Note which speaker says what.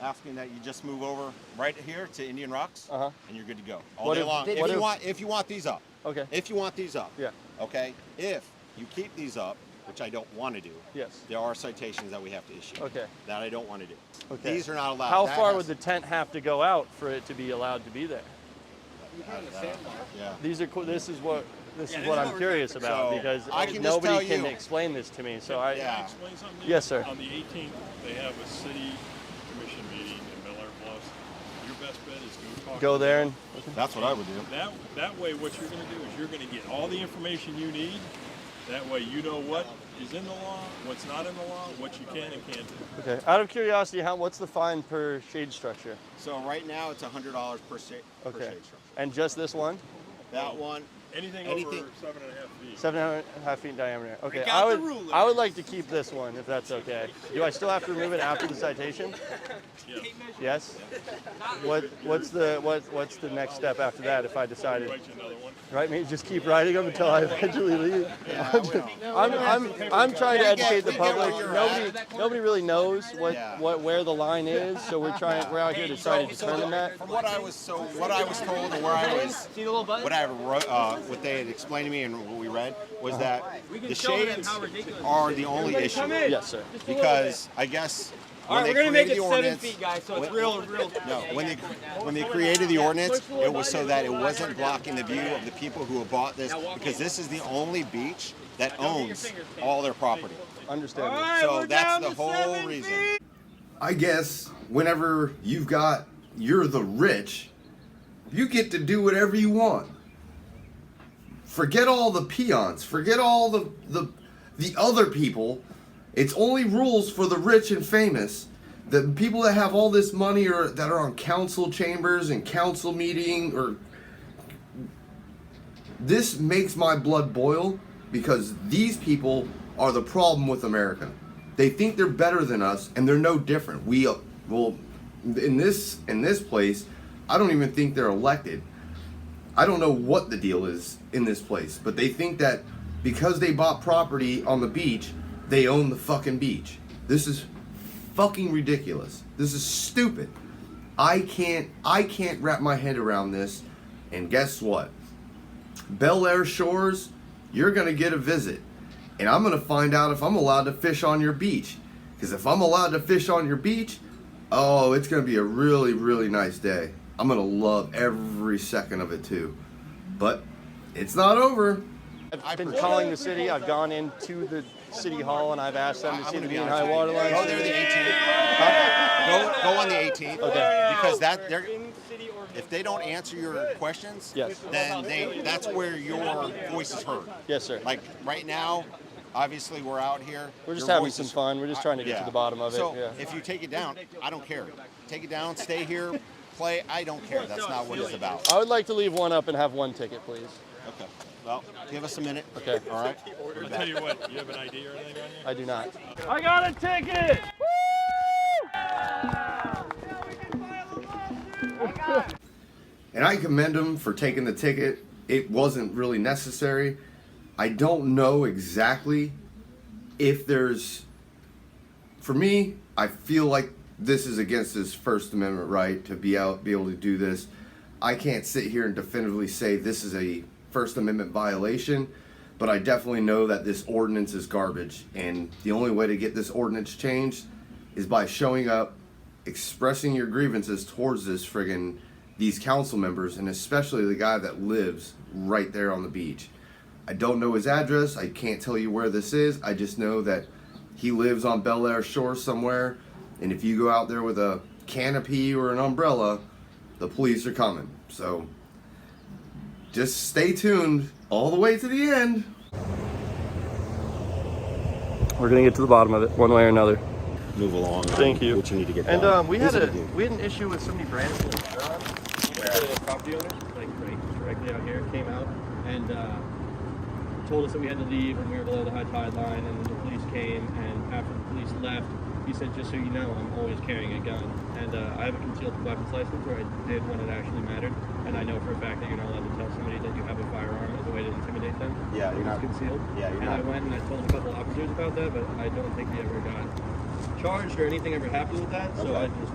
Speaker 1: asking that you just move over right here to Indian Rocks,
Speaker 2: Uh-huh.
Speaker 1: and you're good to go all
Speaker 2: What
Speaker 1: day
Speaker 2: if-
Speaker 1: long.
Speaker 2: did-
Speaker 1: if
Speaker 2: what
Speaker 1: you
Speaker 2: if-
Speaker 1: want, if you want these up,
Speaker 2: Okay.
Speaker 1: if you want these up,
Speaker 2: Yeah.
Speaker 1: okay. If you keep these up, which I don't want to do,
Speaker 2: Yes.
Speaker 1: there are citations that we have to issue.
Speaker 2: Okay.
Speaker 1: That I don't want to do.
Speaker 2: Okay.
Speaker 1: These are not allowed.
Speaker 2: How
Speaker 1: Uh, That
Speaker 2: far
Speaker 1: has-
Speaker 2: would the tent have to go out for it to be allowed to be there?
Speaker 1: Yeah.
Speaker 2: These are cool. This is what this
Speaker 3: Yeah,
Speaker 2: is
Speaker 3: this
Speaker 2: what
Speaker 3: is
Speaker 2: I'm
Speaker 3: what we're
Speaker 2: curious
Speaker 3: doing.
Speaker 2: about
Speaker 1: So,
Speaker 2: because
Speaker 1: I can just
Speaker 2: nobody
Speaker 1: tell
Speaker 2: can
Speaker 1: you-
Speaker 2: explain this to me. So I
Speaker 3: Can I
Speaker 1: Yeah.
Speaker 3: explain something?
Speaker 2: Yes, sir.
Speaker 3: Um, On the 18th, they have a city commission meeting in Bel Air Bluffs. Your best bet is go talk.
Speaker 2: go
Speaker 3: to
Speaker 2: there
Speaker 3: them.
Speaker 2: and
Speaker 1: That's what I would do.
Speaker 3: That, that way, what you're gonna do is you're gonna get all the information you need. That way, you know what is in the law, what's not in the law, what you can and can't do.
Speaker 2: okay. Out of curiosity, how what's the fine per shade structure?
Speaker 1: So right now it's hundred dollars per shade. Per
Speaker 2: Okay.
Speaker 1: shade structure.
Speaker 2: And just this one,
Speaker 1: That one.
Speaker 3: Anything
Speaker 1: Anything-
Speaker 3: over seven and a half feet.
Speaker 2: seven and a half feet in diameter. Okay.
Speaker 4: Break
Speaker 2: I
Speaker 4: out the
Speaker 2: would
Speaker 4: ruler.
Speaker 2: I would like to keep this one if that's okay. Do I still have to remove it after the citation?
Speaker 3: Yes.
Speaker 2: Yes. What what's the what what's the next step after that if I decided?
Speaker 3: Write you another one.
Speaker 2: Right, me just keep riding them until I eventually leave. I'm, I'm, I'm trying to
Speaker 1: We get-
Speaker 2: educate the
Speaker 1: we get where
Speaker 2: public.
Speaker 1: you're
Speaker 2: Nobody, nobody really knows what,
Speaker 1: Yeah.
Speaker 2: what, where the line is, so we're trying, we're out here to try to determine that.
Speaker 1: From what I was so what I was told and where I was
Speaker 4: See the little button?
Speaker 1: what I wrote, uh, what they had explained to me and what we read
Speaker 2: Uh-huh.
Speaker 1: was that
Speaker 4: We can
Speaker 1: the
Speaker 4: show them
Speaker 1: shades
Speaker 4: how ridiculous
Speaker 1: are the only issue
Speaker 2: Yes, sir.
Speaker 1: because I guess when
Speaker 4: All right,
Speaker 1: they
Speaker 4: we're gonna make
Speaker 1: created
Speaker 4: it
Speaker 1: the
Speaker 4: seven
Speaker 1: ordinance,
Speaker 4: feet, guys. So it's
Speaker 1: when-
Speaker 4: real, real.
Speaker 1: No, when they when they created the ordinance, it was so that it wasn't blocking the view of the people who have bought this because this is the only beach that owns all their property.
Speaker 2: Understandable.
Speaker 1: So that's the whole reason.
Speaker 5: I guess whenever you've got you're the rich, you get to do whatever you want. Forget all the peons, forget all the the the other people. It's only rules for the rich and famous. The people that have all this money or that are on council chambers and council meeting or this makes my blood boil because these people are the problem with America. They think they're better than us, and they're no different. We uh, well, in this in this place, I don't even think they're elected. I don't know what the deal is in this place, but they think that because they bought property on the beach, they own the fucking beach. This is fucking ridiculous. This is stupid. I can't I can't wrap my head around this. And guess what? Bel Air Shores, you're going to get a visit. And I'm going to find out if I'm allowed to fish on your beach. Because if I'm allowed to fish on your beach, oh, it's going to be a really, really nice day. I'm going to love every second of it too. But it's not over.
Speaker 2: I've been calling the city, I've gone into the city hall and I've asked them to see the mean high water
Speaker 1: Go there
Speaker 2: line.
Speaker 1: the 18th. Go, go on the 18th.
Speaker 2: Okay.
Speaker 1: Because that they're, if they don't answer your questions,
Speaker 2: Yes.
Speaker 1: then they that's where your voice is heard.
Speaker 2: Yes, sir.
Speaker 1: Like right now, obviously we're out here.
Speaker 2: We're just
Speaker 1: your
Speaker 2: having
Speaker 1: voice
Speaker 2: some
Speaker 1: is-
Speaker 2: fun. We're just trying to get to
Speaker 1: Yeah.
Speaker 2: the bottom of it,
Speaker 1: So
Speaker 2: yeah.
Speaker 1: if you take it down, I don't care. Take it down, stay here, play. I don't care. That's not what it's about.
Speaker 2: I would like to leave one up and have one ticket, please.
Speaker 1: Okay. Well, give us a minute.
Speaker 2: Okay.
Speaker 1: All right.
Speaker 3: I'll tell you what, you have an ID or anything on you?
Speaker 2: I do not.
Speaker 4: I got a ticket.
Speaker 5: And I commend him for taking the ticket. It wasn't really necessary. I don't know exactly if there's. For me, I feel like this is against his First Amendment right to be out, be able to do this. I can't sit here and definitively say this is a First Amendment violation, but I definitely know that this ordinance is garbage. And the only way to get this ordinance changed is by showing up, expressing your grievances towards this friggin' these council members and especially the guy that lives right there on the beach. I don't know his address. I can't tell you where this is. I just know that he lives on Bel Air Shore somewhere. And if you go out there with a canopy or an umbrella, the police are coming. So just stay tuned all the way to the end.
Speaker 2: We're gonna get to the bottom of it, one way or another.
Speaker 1: Move along.
Speaker 2: Thank you.
Speaker 1: What you need to get
Speaker 2: And
Speaker 1: done.
Speaker 2: um, we
Speaker 1: These
Speaker 2: had
Speaker 1: are
Speaker 2: a
Speaker 1: the deals.
Speaker 2: we had an issue with somebody Branson, John, the property owner,
Speaker 4: Like right directly out here, came out and uh, told us that we had to leave and we were below the high tide line. And then the police came and after the police left, he said, "Just so you know, I'm always carrying a gun and uh, I have a concealed weapons license where I did when it actually mattered. And I know for a fact that you're not allowed to tell somebody that you have a firearm as a way to intimidate them.
Speaker 1: Yeah, you're
Speaker 4: It's
Speaker 1: not-
Speaker 4: concealed.
Speaker 1: yeah, you're
Speaker 4: and I
Speaker 1: not-
Speaker 4: went and I told a couple officers about that, but I don't think they ever got charged or anything ever happened with that. So I just